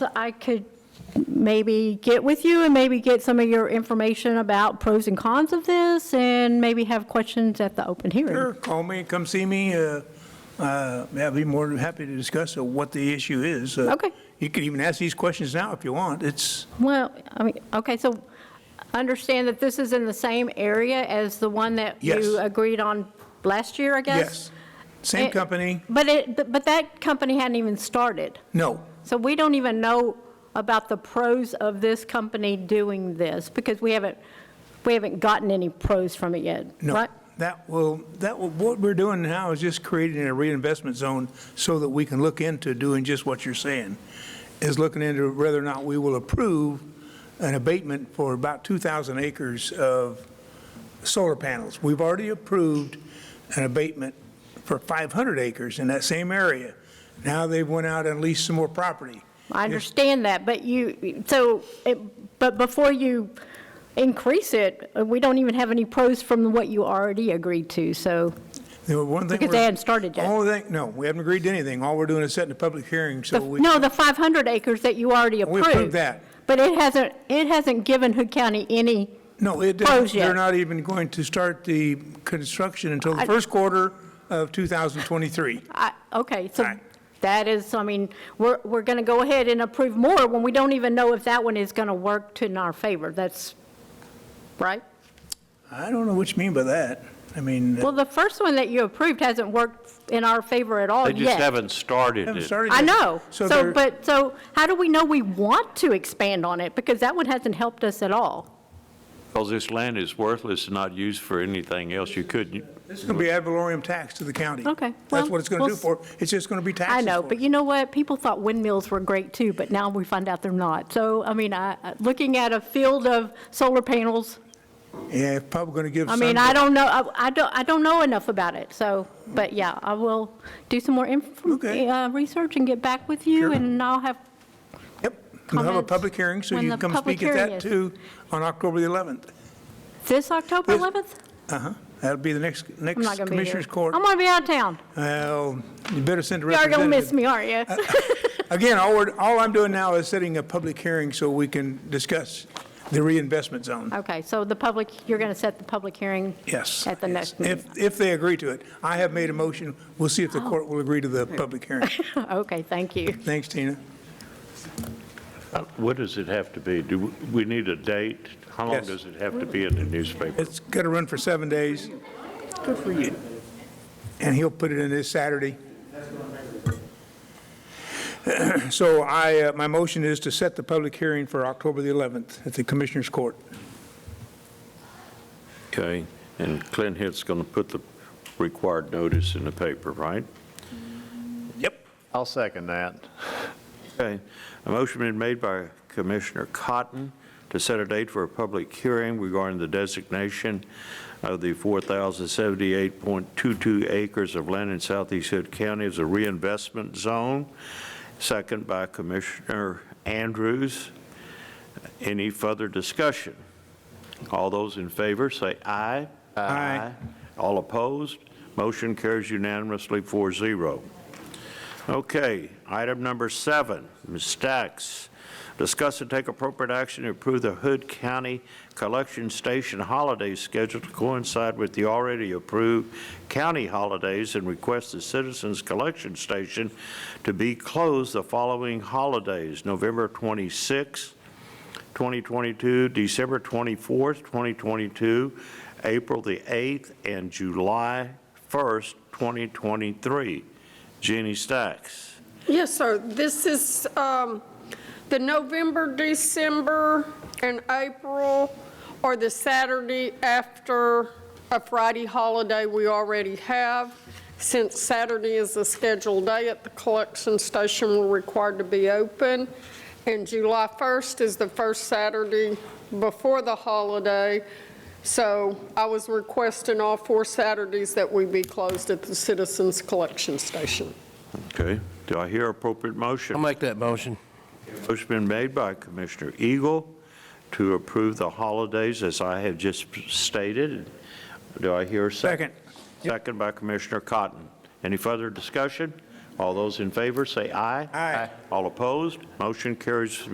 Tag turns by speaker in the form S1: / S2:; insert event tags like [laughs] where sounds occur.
S1: I could maybe get with you and maybe get some of your information about pros and cons of this and maybe have questions at the open hearing.
S2: Sure, call me, come see me. uh, uh, I'd be more than happy to discuss uh, what the issue is. Uh,
S1: Okay.
S2: You can even ask these questions now if you want. It's,
S1: Well, I mean, okay, so understand that this is in the same area as the one that
S2: Yes.
S1: you agreed on last year, I
S2: yes.
S1: guess?
S2: Same
S1: It-
S2: company,
S1: But it, but- but that company hadn't even started.
S2: no.
S1: So we don't even know about the pros of this company doing this because we haven't, we haven't gotten any pros from it yet,
S2: No,
S1: right?
S2: that will, that will, what we're doing now is just creating a reinvestment zone so that we can look into doing just what you're saying, is looking into whether or not we will approve an abatement for about 2,000 acres of solar panels. We've already approved an abatement for 500 acres in that same area. Now they've went out and leased some more property.
S1: I understand that, but you, so, it- but before you increase it, uh, we don't even have any pros from what you already agreed to, so,
S2: There were one thing
S1: Because they
S2: we're-
S1: hadn't started yet.
S2: Only thing, no, we haven't agreed to anything. All we're doing is setting a public hearing, so we.
S1: no, the 500 acres that you already
S2: We
S1: approved.
S2: approved that.
S1: But it hasn't, it hasn't given Hood County any,
S2: No, it
S1: Close
S2: doesn't.
S1: yet.
S2: They're not even going to start the construction until the
S1: I-
S2: first quarter of 2023.
S1: I- okay, so
S2: Right.
S1: that is, I mean, we're, we're going to go ahead and approve more when we don't even know if that one is going to work to in our favor, that's, right?
S2: I don't know what you mean by that. I mean,
S1: Well, the first one that you approved hasn't worked in our favor at all
S3: They
S1: yet.
S3: just haven't started
S2: haven't
S3: it.
S2: started
S1: I
S2: yet.
S1: know. So,
S2: they're-
S1: but, so how do we know we want to expand on it? Because that one hasn't helped us at all.
S3: Because this land is worthless and not used for anything else. You couldn't,
S2: It's going to be ad valorem tax to the county.
S1: Okay, well,
S2: That's what it's going to do
S1: we'll-
S2: for, it's just going to be taxes
S1: I know,
S2: for
S1: but
S2: it.
S1: you know what? People thought windmills were great too, but now we find out they're not. So, I mean, I, I- looking at a field of solar panels,
S2: Yeah, it's probably going to give
S1: I
S2: some.
S1: mean, I don't know, I, I don't, I don't know enough about it. So, but yeah, I will do some more inf-
S2: Okay.
S1: uh, research and get back with you
S2: Sure.
S1: and I'll have,
S2: Yep, we'll have a
S1: comments
S2: public hearing, so
S1: when
S2: you
S1: the
S2: can come
S1: public
S2: speak at
S1: hearing
S2: that
S1: is.
S2: too on October the 11th.
S1: this October
S2: This-
S1: 11th?
S2: Uh-huh. That'll be the next,
S1: I'm not
S2: next
S1: going to be here.
S2: Commissioners Court.
S1: I'm going to be out of town.
S2: Well, you better send a
S1: Y'all are
S2: representative. Uh,
S1: going to miss me, aren't you?
S2: [laughs] Again, all we're, all I'm doing now is setting a public hearing so we can discuss the reinvestment zone.
S1: Okay, so the public, you're going to set the public hearing?
S2: Yes.
S1: At the next meeting? Oh.
S2: If, if they agree to it. I have made a motion. We'll see if the court will agree to the public
S1: [laughs]
S2: hearing.
S1: [laughs] Okay, thank you.
S2: Thanks, Tina.
S3: uh, what does it have to be? Do we- we need a date? How long
S2: Yes.
S3: does it have to be in the newspaper?
S2: It's got to run for seven days. Good for you. And he'll put it in this Saturday. [clears throat] So I, uh, my motion is to set the public hearing for October the 11th at the Commissioners Court.
S3: Okay, and Clint Hill's going to put the required notice in the paper, right?
S4: I'll second that.
S3: Okay, a motion been made by Commissioner Cotton to set a date for a public hearing regarding the designation of the 4,078.22 acres of land in southeast Hood County as a reinvestment zone, second by Commissioner Andrews. Any further discussion? All those in favor, say aye.
S2: Aye.
S3: All opposed? Motion carries unanimously, 4-0. Okay, item number seven, Ms. Stacks. Discuss and take appropriate action to approve the Hood County Collection Station holiday schedule to coincide with the already approved county holidays and request the Citizens Collection Station to be closed the following holidays, November 26th, 2022, December 24th, 2022, April the 8th, and July 1st, 2023. Jeannie Stacks.
S5: Yes, sir. This is um, the November, December, and April, or the Saturday after a Friday holiday we already have. Since Saturday is a scheduled day at the collection station, we're required to be open. And July 1st is the first Saturday before the holiday. So I was requesting all four Saturdays that we be closed at the Citizens Collection Station.
S3: Okay, do I hear appropriate motion?
S6: I'll make that motion.
S3: Motion been made by Commissioner Eagle to approve the holidays as I have just stated. Do I hear a second?
S2: Second.
S3: Second by Commissioner Cotton. Any further discussion? All those in favor, say aye.
S2: Aye.
S3: All opposed, motion carries